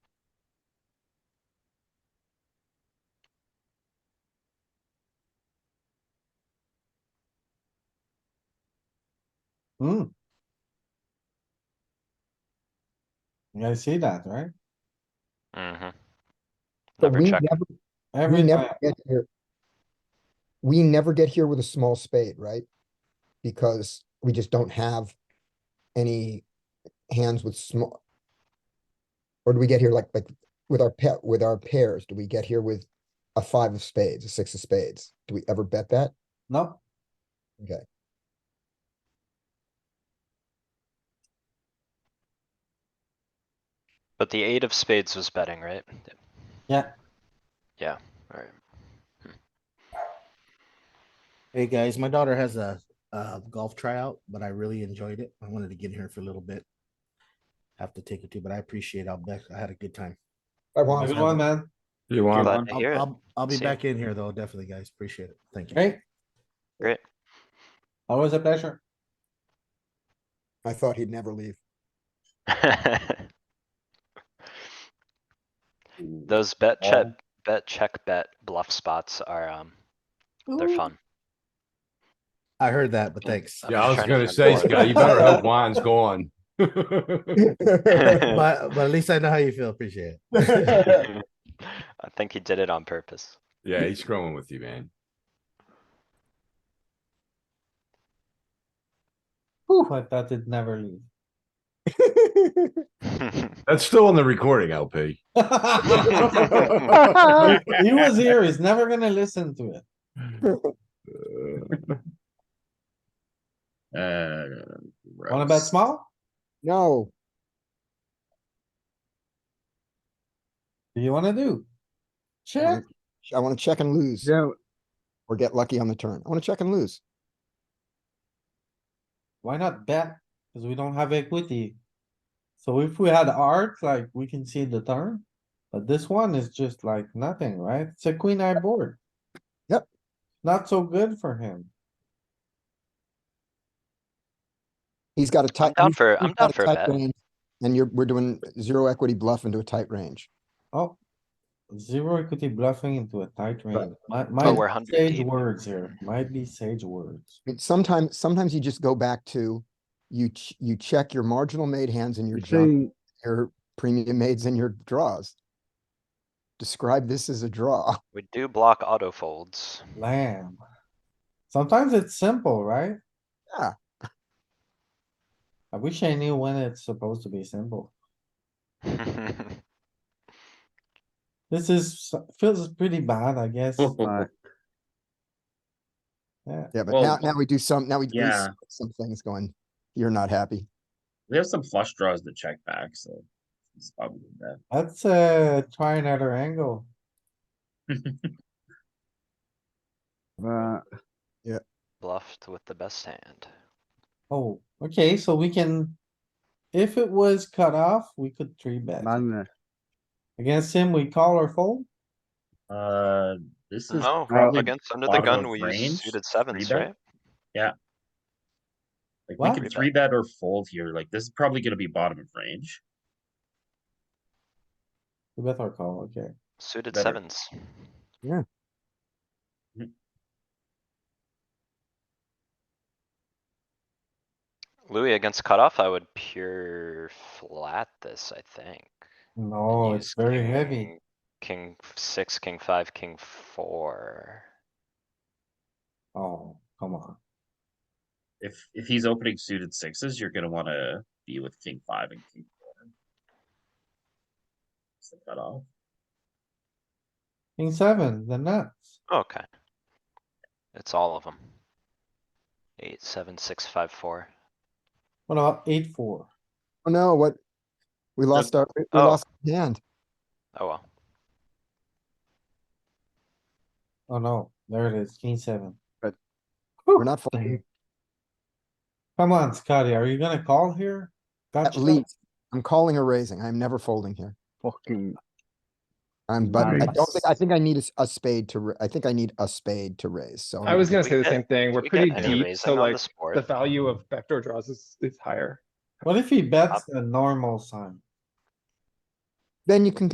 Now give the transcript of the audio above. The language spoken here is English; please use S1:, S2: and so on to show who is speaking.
S1: Hmm. You guys see that, right?
S2: Mm-hmm.
S3: But
S2: Never
S3: we
S2: check.
S3: never, we
S1: Every
S3: never
S1: time,
S3: get here. We never get here with a small spade, right? Because we just don't have any hands with small. Or do we get here like, like with our pet, with our pairs? Do we get here with a five of spades, a six of spades? Do we ever bet that?
S1: no,
S3: Okay,
S2: But the eight of spades was betting, right?
S1: Yeah.
S2: Yeah, alright.
S4: Hey guys, my daughter has a, uh golf tryout, but I really enjoyed it. I wanted to get here for a little bit. Have to take it too, but I appreciate. I'll bet I had a good time.
S3: I want,
S1: good one, man.
S5: You want
S2: Glad
S5: one?
S2: to
S4: I'll,
S2: hear it.
S4: I'll, I'll be
S2: See.
S4: back in here though, definitely, guys. Appreciate it. Thank you.
S1: Great.
S2: Great.
S1: Always a pleasure.
S3: I thought he'd never leave.
S2: Those bet check, bet check bet bluff spots are, um, they're fun.
S4: I heard that, but thanks.
S2: I'm
S5: Yeah,
S2: just
S5: I was
S2: trying to
S5: gonna
S2: find
S5: say,
S2: more.
S5: Scott, you better hope wine's gone.
S4: But, but at least I know how you feel. Appreciate it.
S2: I think he did it on purpose.
S5: Yeah, he's scrolling with you, man.
S1: Whew, I thought it'd never leave.
S5: That's still on the recording, LP.
S1: Uh, He was here, he's never gonna listen to it.
S6: Uh.
S1: Wanna bet
S6: gross.
S1: small?
S3: No,
S1: Do you wanna do? Check,
S3: I wanna check and lose
S7: Yeah,
S3: or get lucky on the turn. I wanna check and lose.
S1: why not bet? Cause we don't have equity. So if we had art, like, we can see the turn, but this one is just like nothing, right? It's a queen eye board.
S3: Yep.
S1: Not so good for him.
S3: He's got a tight.
S2: down
S3: he's-
S2: for-
S3: he's
S2: I'm
S3: got
S2: down
S3: a
S2: for a
S3: tight
S2: bet.
S3: range, And you're, we're doing zero equity bluff into a tight range.
S1: Oh, zero equity bluffing into a tight range. Might,
S2: But we're
S1: might
S2: 100
S1: be sage
S2: deep.
S1: words here. Might be sage words.
S3: But sometimes, sometimes you just go back to, you, ch- you check your marginal made hands and your
S7: you're
S3: jump,
S7: saying,
S3: your premium maids and your draws. Describe this as a draw.
S2: We do block auto folds.
S1: Lamb. Sometimes it's simple, right?
S3: Yeah.
S1: I wish I knew when it's supposed to be simple. This is, feels pretty bad, I guess.
S6: Uh,
S1: Yeah,
S3: Yeah, but
S6: Well,
S3: now, now we do some, now we do
S6: yeah.
S3: some things going, you're not happy.
S6: We have some flush draws to check back, so. It's probably that.
S1: let's uh try another angle.
S7: uh,
S2: Bluffed with the best hand.
S1: Oh, okay, so we can. If it was cut off, we could three bet.
S7: man,
S1: Against him, we call or fold?
S6: Uh, this is
S2: No,
S6: probably,
S2: against under the
S6: bottom
S2: gun,
S6: of
S2: we
S6: range,
S2: use suited sevens,
S6: three bet.
S2: right?
S6: like, we
S1: Wow.
S6: could three bet or fold here, like, this is probably gonna be bottom of range.
S1: We bet or call, okay.
S2: Suited
S6: Better.
S2: sevens. Mm-hmm.
S6: Mhm.
S2: Louis against cutoff, I would pure flat this, I think. and
S1: No, Oh, it's
S2: use
S1: very heavy.
S2: King king six, king five, king four.
S1: Oh, come on.
S6: If, if he's opening suited sixes, you're gonna wanna be with king five and king four. It's the cutoff.
S1: King seven, the nuts.
S2: Okay. It's all of them. Eight, seven, six, five, four.
S1: What about eight, four?
S3: Oh no, what? We lost our, we
S2: oh.
S3: lost our hand.
S2: Oh well.
S1: Oh no, there it is, king seven.
S7: But-
S3: We're not folding,
S1: Come on, Scotty, are you gonna call here?
S3: at
S1: Gotcha.
S3: least. I'm calling or raising. I'm never folding here.
S7: fucking,
S3: I'm, but I don't
S6: Nice.
S3: think, I think I need a s- a spade to, ra- I think I need a spade to raise, so.
S8: I was
S3: I'm-
S8: gonna
S2: we
S8: say the
S2: get-
S8: same thing. We're
S2: We get
S8: pretty
S2: any
S8: deep,
S2: raising
S8: so
S2: on
S8: like
S2: this board?
S8: the value of backdoor draws is, is higher.
S1: What if he bets the normal sign?
S3: Then you can